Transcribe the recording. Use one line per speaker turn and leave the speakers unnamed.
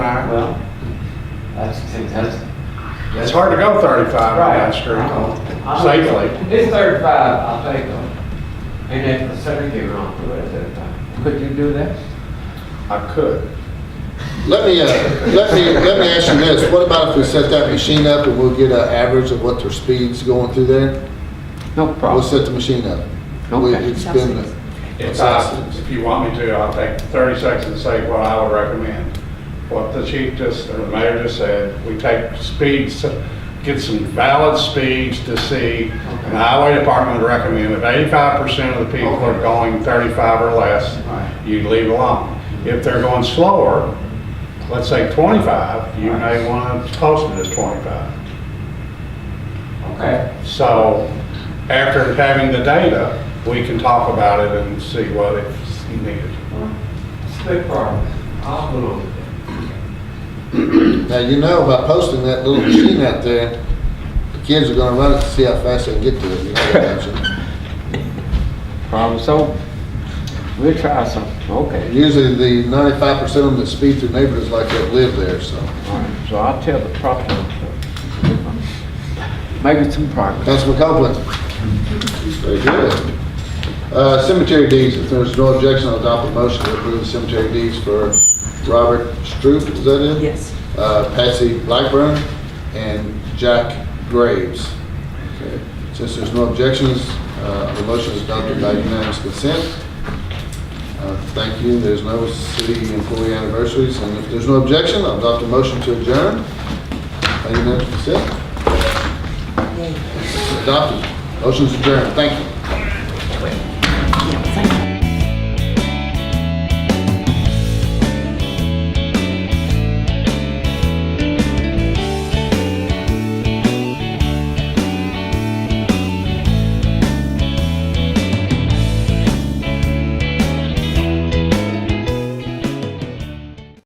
right, well, that's, that's.
It's hard to go 35 on that
Right.
street
I know. I know.
safely.
If It's thirty-five, I'll take them. And if the cemetery wrong, do it at thirty-five. Could you do that?
I could.
Let me, uh, let me, let me ask you this, what about if we set that machine up and we'll get an average of what their speed's going through there?
No
We'll
problem.
set the machine up. We-
Okay.
It's been,
If I, if you want me to, I'll take 30 seconds and say what I would recommend. What the chief just, or the mayor just said, we take speeds, get some valid speeds to see. And the highway department would recommend if 85% of the people are
Okay.
going 35 or less,
Right.
you leave alone. If they're going slower, let's say 25, you may want to post it as 25.
Okay,
So after having the data, we can talk about it and see what is needed.
well, it's a big problem. I'll move on with it.
now you know, by posting that little machine out there, the kids are gonna run it to see how fast they can get to it, you know, imagine.
Problem solved. We'll try some, okay.
Usually the ninety-five percent of them that speed through neighborhoods like that live there, so.
All right, so I'll tell the property owner. Maybe some progress.
Councilman Copeland? Very good. Uh, Cemetery deeds, if there's no objection, I'll adopt a motion to approve cemetery deeds for Robert Stroop, is that it?
Yes.
Uh, Patsy Blackburn and Jack Graves. Okay. Since there's no objections, uh, the motion is adopted by unanimous consent. Uh, Thank you, there's no city employee anniversaries, and if there's no objection, I'll adopt a motion to adjourn by unanimous consent. Adopted. Motion's adjourned. Thank you.